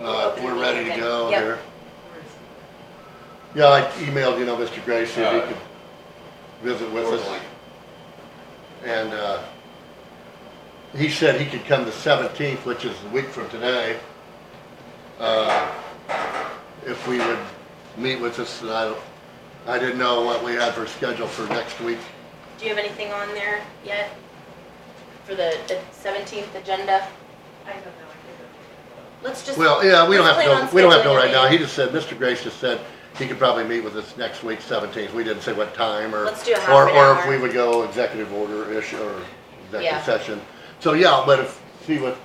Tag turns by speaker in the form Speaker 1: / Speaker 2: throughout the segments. Speaker 1: Uh, we're ready to go
Speaker 2: Yep.
Speaker 1: there. Yeah, I emailed, you know, Mr. Gray, see if he could visit with us. And, uh, he said he could come the seventeenth, which is a week from today. Uh, if we would meet with us, and I, don't- I didn't know what we had for schedule for next week.
Speaker 2: Do you have anything on there yet? For the seventeenth agenda?
Speaker 3: I don't know, I
Speaker 2: Let's just.
Speaker 1: Well, yeah, we don't have
Speaker 2: let's
Speaker 1: to,
Speaker 2: plan on
Speaker 1: know- we don't have to know
Speaker 2: scheduling a
Speaker 1: right now. He
Speaker 2: meeting.
Speaker 1: just said, Mr. Grace just said he could probably meet with us next week, seventeenth. We didn't say what time or.
Speaker 2: Let's do a half
Speaker 1: or-
Speaker 2: an
Speaker 1: Or if
Speaker 2: hour.
Speaker 1: we would go executive order-ish or
Speaker 2: Yeah.
Speaker 1: executive session. So, yeah, but if, see what,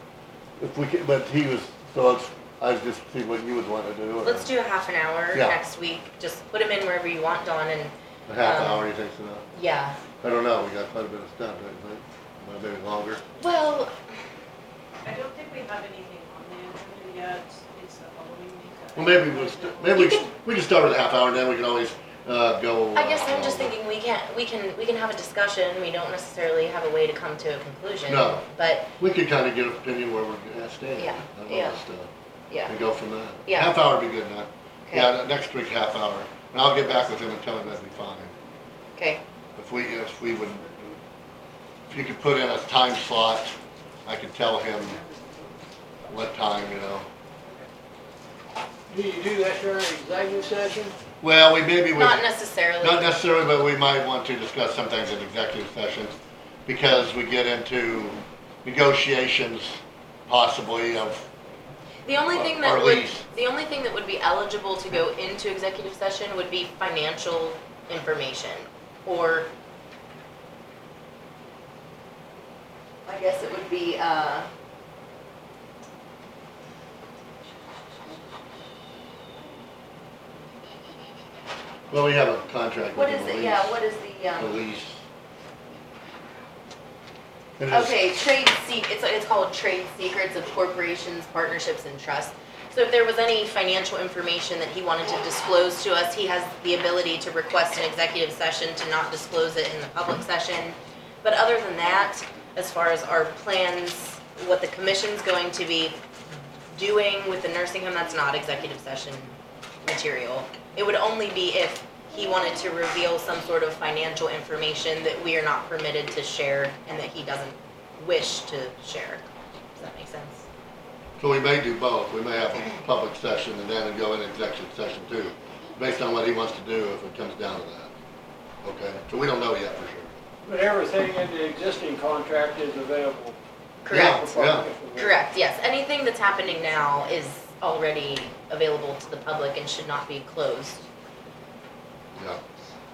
Speaker 1: if we could, but he was, so it's, I was just see what you would want to do. or
Speaker 2: Let's do a half an hour
Speaker 1: Yeah.
Speaker 2: next week. Just put them in wherever you want, Dawn, and,
Speaker 1: A half
Speaker 2: um,
Speaker 1: hour, you think's enough?
Speaker 2: yeah.
Speaker 1: I don't know. We got quite a bit of stuff, I think. Well, Maybe longer.
Speaker 2: Well,
Speaker 3: don't- I don't think we have anything on the agenda yet, it's the Halloween week.
Speaker 1: Well, maybe we'll, st- maybe we,
Speaker 2: You
Speaker 1: s- we can start with a half hour and then we can always, uh, go.
Speaker 2: I guess
Speaker 1: uh,
Speaker 2: I'm just thinking we can't, we can, we can have a discussion. We don't necessarily have a way to come to a conclusion.
Speaker 1: No.
Speaker 2: But,
Speaker 1: We could kind of get an opinion where we're at standing.
Speaker 2: Yeah,
Speaker 1: on all
Speaker 2: yeah.
Speaker 1: this stuff,
Speaker 2: yeah,
Speaker 1: And go from there.
Speaker 2: Yeah.
Speaker 1: Half hour would be good enough.
Speaker 2: Okay.
Speaker 1: Yeah, next week, half hour. And I'll get back with him and tell him that'd be fine.
Speaker 2: okay,
Speaker 1: If we, if we would, if you could put in a time slot, I could tell him what time, you know.
Speaker 4: Do you do that during executive session?
Speaker 1: Well, we maybe would.
Speaker 2: not necessarily.
Speaker 1: Not necessarily, but we might want to discuss some things in executive sessions, because we get into negotiations possibly of,
Speaker 2: The only
Speaker 1: Or-
Speaker 2: thing that
Speaker 1: or
Speaker 2: would,
Speaker 1: lease.
Speaker 2: the only thing that would be eligible to go into executive session would be financial information, or. I guess it would be, uh.
Speaker 1: well, we have a contract with
Speaker 2: What
Speaker 1: the
Speaker 2: is it,
Speaker 1: police.
Speaker 2: yeah, what is the,
Speaker 1: The
Speaker 2: um,
Speaker 1: lease. And it's-
Speaker 2: okay, trade se, it's, it's called trade secrets of corporations, partnerships, and trusts. So if there was any financial information that he wanted to disclose to us, he has the ability to request an executive session to not disclose it in the public session. But other than that, as far as our plans, what the commission's going to be doing with the nursing home, that's not executive session material. It would only be if he wanted to reveal some sort of financial information that we are not permitted to share and that he doesn't wish to share. Does that make sense?
Speaker 1: So we may do both, we may have a public session and then go in executive session too, based on what he wants to do if it comes down to that. Okay, so we don't know yet for sure.
Speaker 4: But everything in the existing contract is available.
Speaker 2: Correct.
Speaker 4: for
Speaker 1: Yeah.
Speaker 4: public information.
Speaker 2: Correct, yes. Anything that's happening now is already available to the public and should not be closed.
Speaker 1: Yeah,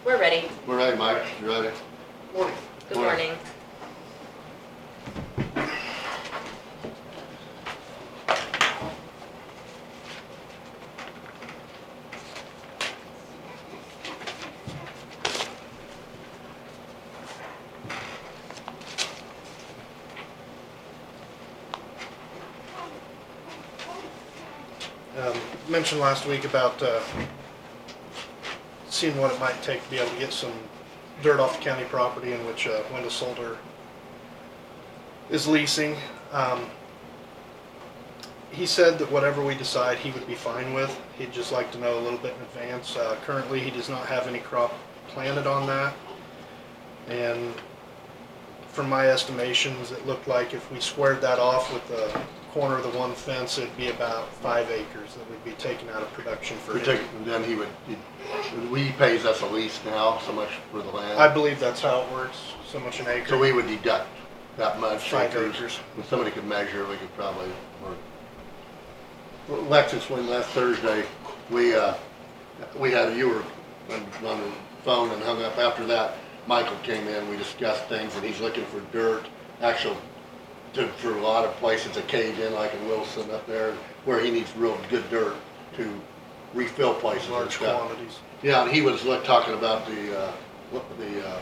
Speaker 2: We're ready.
Speaker 1: we're ready, Mike, you ready?
Speaker 2: Morning. Good
Speaker 1: Morning.
Speaker 2: morning.
Speaker 5: um, mentioned last week about uh, seeing what it might take to be able to get some dirt off the county property in which uh, Wendell Solder is leasing. Um, he said that whatever we decide, he would be fine with. He'd just like to know a little bit in advance. Uh, currently, he does not have any crop planted on that, and from my estimations, it looked like if we squared that off with the corner of the one fence, it'd be about five acres that would be taken out of production for
Speaker 1: We
Speaker 5: him.
Speaker 1: take, and then he would, he- we pays us a lease now, so much for the
Speaker 5: I
Speaker 1: land,
Speaker 5: believe that's how it works, so much an acre.
Speaker 1: so we would deduct that much.
Speaker 5: Five acres.
Speaker 1: If somebody could measure, we could probably work. Well, Alexis, when last Thursday, we, uh, we had, you were on- on the phone and hung up after that. Michael came in, we discussed things and he's looking for dirt, actual, to- for a lot of places, a cave in like in Wilson up there, where he needs real good dirt to refill places and
Speaker 5: Large
Speaker 1: stuff.
Speaker 5: quantities.
Speaker 1: Yeah, and he was like, talking about the, uh, what- the, uh,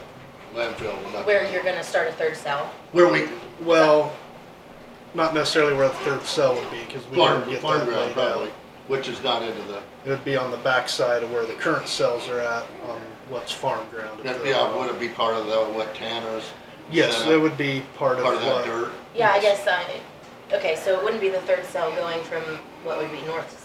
Speaker 1: landfill. and that-
Speaker 2: Where you're gonna start a third cell.
Speaker 1: Where we,
Speaker 5: Well, not necessarily where the third cell would be, because we
Speaker 1: farm,
Speaker 5: didn't get
Speaker 1: farm
Speaker 5: that
Speaker 1: ground
Speaker 5: laid
Speaker 1: probably,
Speaker 5: out.
Speaker 1: which is not into the,
Speaker 5: It would be on the backside of where the current cells are at, on what's farm ground. at the-
Speaker 1: yeah, would it be part of the, what Tanner's?
Speaker 5: Yes,
Speaker 1: set up?
Speaker 5: it would be part of
Speaker 1: Part of that
Speaker 5: what
Speaker 1: dirt?
Speaker 2: Yeah, I guess, uh, Okay, so it wouldn't be the third cell going from what would be north to